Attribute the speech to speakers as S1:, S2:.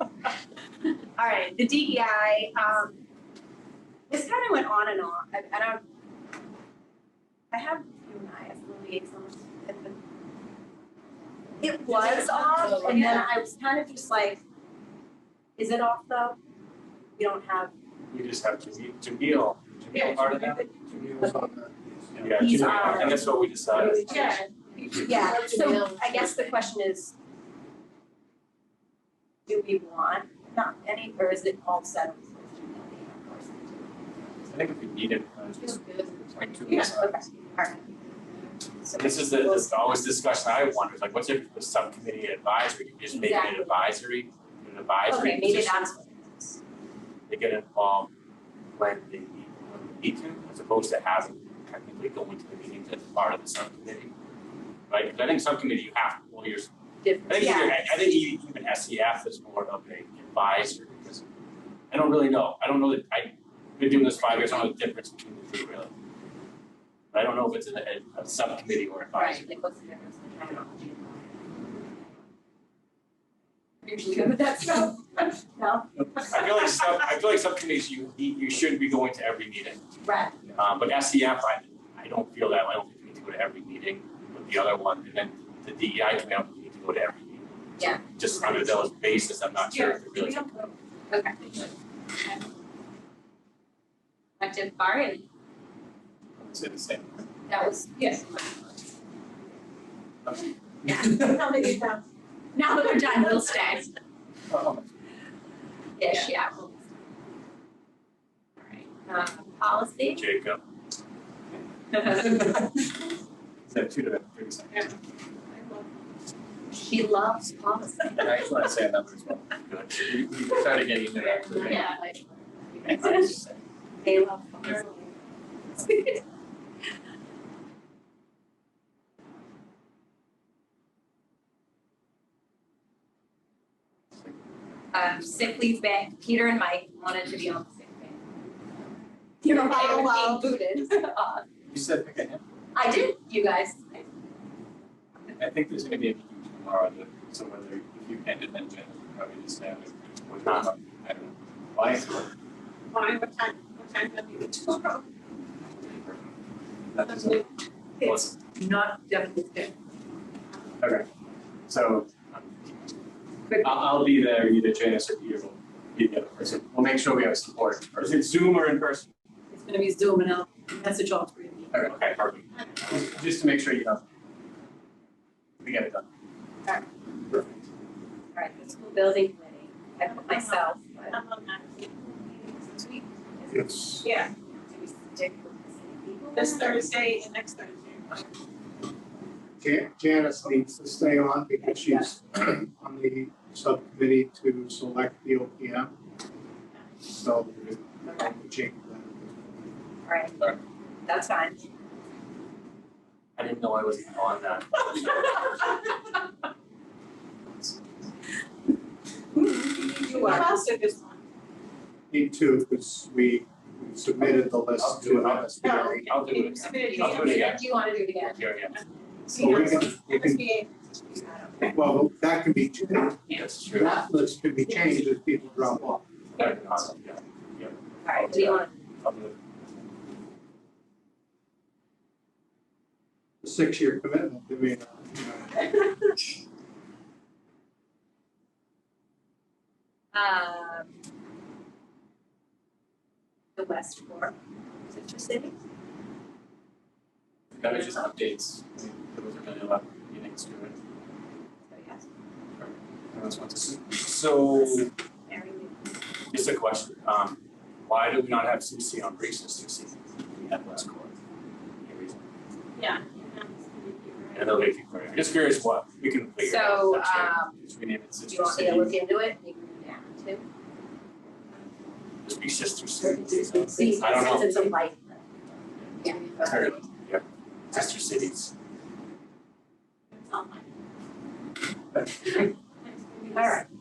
S1: All right, the DEI, um, this kind of went on and on, I, I don't. I have you and I as the liaisons at the. It was off, and then I was kind of just like, is it off though? We don't have,
S2: You just have Jamil, Jamil, Jamil part of that?
S3: Jamila's on that.
S2: Yeah,
S1: He's um,
S2: Jamil,
S1: our-
S2: and that's what we decided.
S4: Yeah.
S1: yeah, so I guess the question is. Do we want not any, or is it all settled?
S2: I think if we need it, uh, just like two
S1: Yeah,
S2: weeks.
S1: okay, all right. So
S2: This is the, this is always discussion I wondered, like, what's if the subcommittee advisory, you just make it an
S1: Exactly.
S2: advisory, an advisory
S1: Okay, maybe
S2: position,
S1: that's.
S2: they get involved when they need, when they need to, as opposed to having technically going to the meetings as part of the subcommittee. Right, 'Cause I think subcommittee, you have, well, you're I
S1: different.
S2: think
S1: Yeah,
S2: even, I I think e- even SEF is more of a advisor because I don't really know. I don't know that I been doing this five years. I don't know the difference between the two really. But I don't know if it's a, a subcommittee or advisory.
S1: right, like what's the difference in terminology?
S4: Usually good with that stuff.
S1: No,
S2: I feel like sub I feel like subcommittees you need- you should be going to every meeting.
S1: right,
S2: Um, but SEF I I don't feel that. way. I don't think we need to go to every meeting. But the other one and then the DEI committee I don't think we need to go to every meeting.
S1: Yeah.
S2: Just under those basis, I'm not sure if it really.
S1: okay. Active bar and
S2: Say the same.
S1: that was,
S4: Yes.
S1: yeah, now that you're done, now that we're done, we'll stay. Ish, yeah. we'll- All right, um, policy.
S2: Jacob. Is that two to three
S4: Yeah.
S2: seconds?
S1: She loves policy.
S3: I just wanna say another as well.
S2: Good.
S3: We we started getting into that. today.
S1: Yeah.
S2: It's
S1: They love policy. um, sick leave bank, Peter and Mike wanted to be on the sick bank.
S4: You're
S1: They
S4: right,
S1: were being
S4: wow.
S1: booted off.
S3: You said pick a hand.
S1: I did, you guys.
S3: I think there's gonna be a meeting tomorrow, that- so whether if you ended then Jen, probably just have it. with-
S2: Huh.
S3: I don't know. Why?
S4: Why, what time, what time do you tomorrow?
S3: That doesn't-
S4: It's not definitely.
S3: Okay, so. um, I'll, I'll be there, either Janice or Peter will be the other person. We'll make sure we have support.
S2: Is it Zoom or in person?
S4: It's gonna be Zoom and I'll message all three of you.
S3: All right,
S2: Okay, perfect.
S3: just- just to make sure you know. We get it done. Perfect.
S1: Alright, the school building committee, I put myself, but
S4: I'm on that.
S5: It's,
S4: Yeah,
S1: do we stick with the same people?
S4: this Thursday and next Thursday.
S5: Jan- Janice needs to stay on because she's on the subcommittee to select the OPM. So
S1: Okay,
S5: we'll change
S1: alright,
S2: Alright.
S1: that's fine.
S2: I didn't know I was on that.
S4: You are. this one.
S5: that. Need to, because we submitted the list to an SBA.
S2: I'll do it. I'll do it again.
S1: Do you wanna do it again?
S2: Here again.
S5: So we can, we can, well, that can be changed.
S2: That's true.
S5: That list can be changed if people drop off.
S2: That'd be awesome, yeah.
S1: Alright, do you wanna,
S2: I'll do it.
S5: The Six-year commitment, I mean, uh, you know.
S1: um. The West Fork, is it just city?
S3: That was just updates. I mean, There wasn't really a
S2: uh,
S3: lot of meetings to it.
S1: So Oh, yes,
S3: Everyone just wants to see.
S2: So,
S1: Mary Lou.
S2: just a question, um, why do we not have Susie on recess this season? We had last quarter. Any reason?
S4: Yeah.
S2: I know they keep, I'm just curious what, we can figure it out.
S1: So,
S2: That's great.
S1: um,
S3: Just rename it
S1: do
S3: Citrus
S1: you want me to
S3: City.
S1: look into it, maybe we can add to?
S2: Just be sister cities.
S1: See,
S2: I don't know.
S1: since it's a light. Yeah.
S2: Sorry, yeah, sister cities.
S4: All right.